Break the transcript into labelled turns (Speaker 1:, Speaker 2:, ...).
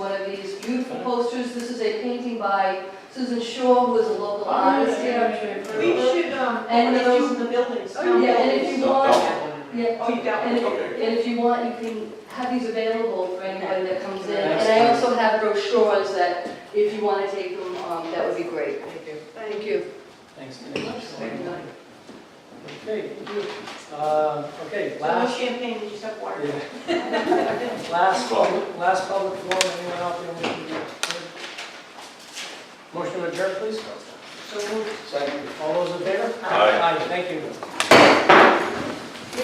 Speaker 1: by Susan Shaw, who is a local
Speaker 2: Oh, yeah,
Speaker 1: artist here. I'm sure you've heard
Speaker 2: We
Speaker 1: of her.
Speaker 2: should, um,
Speaker 1: And
Speaker 2: and
Speaker 1: if you-
Speaker 2: those in the buildings.
Speaker 1: Oh, yeah, and if you want- Yeah,
Speaker 2: Oh, you got
Speaker 1: and
Speaker 2: one.
Speaker 1: if,
Speaker 3: Okay.
Speaker 1: and if you want, you can have these available for anybody that comes in. And I also have brochures that, if you want to take them, um, that would be great. Thank you. Thank you.
Speaker 4: Thanks.
Speaker 1: Thank you.
Speaker 4: Okay, uh, okay,
Speaker 2: So no
Speaker 4: last,
Speaker 2: champagne, you just have water.
Speaker 4: yeah. last, public- last public forum, anyone out there? wishing to- Motion to adjourn, please.
Speaker 2: So moved.
Speaker 4: Second. All those in favor?
Speaker 3: Aye.
Speaker 4: thank you.